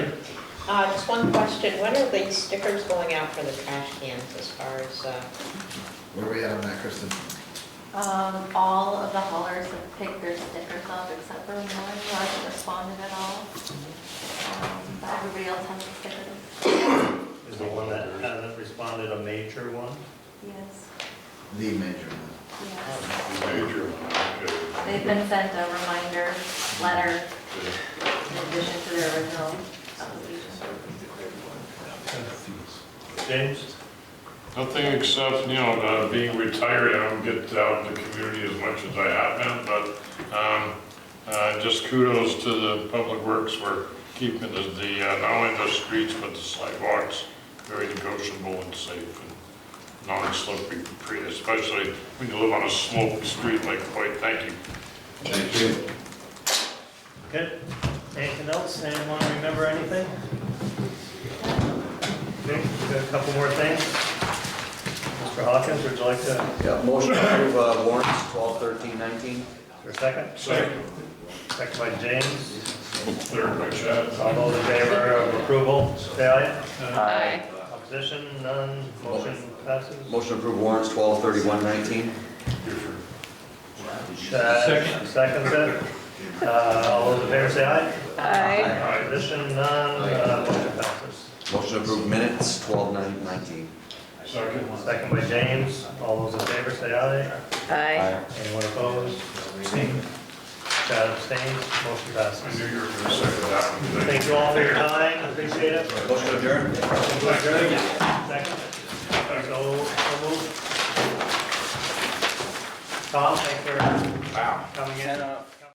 Uh, Just one question, when are the stickers going out for the trash cans as far as, uh, Where are we at on that, Kristen? Um, all of the haulers have picked their stickers up except for one who hasn't responded at all. Um, But everybody else has the stickers, Is the one that hasn't responded a major one? yes, The major one. yes. Major one, They've been sent a reminder letter okay. in addition to their original application. James? Nothing except, you know, uh, being retired, I don't get out in the community as much as I have been, but um, uh, just kudos to the public works for keeping the, the, uh, not only the streets, but the sidewalks very negotiable and safe and non-slippery, pre- especially when you live on a sloped street like White. Thank you. Thank you. Good. Anything else? Anyone remember anything? Okay, we've got a couple more things. Mr. Hawkins, would you like to, Yeah, motion to approve uh, warrants 12, 13, 19. for a second? Second, Second by James. third by Chad. All those in favor of approval, say aye. Aye. Opposition, none. Motion passes. Motion to approve warrants 12, 31, 19. Second. Second it. Uh, All those in favor, say aye. Aye. Opposition, none. Uh, Motion passes. Motion to approve minutes 12, 9, 19. Second. Second by James. All those in favor, say aye. Aye. Anyone opposed? Abstained? Chad abstains, motion I knew passes. you were going to say that one. Thank you. Thank you all for your time, appreciate it. Motion adjourned. Second. So, so moved. Tom, thanks for coming in. Ten, uh,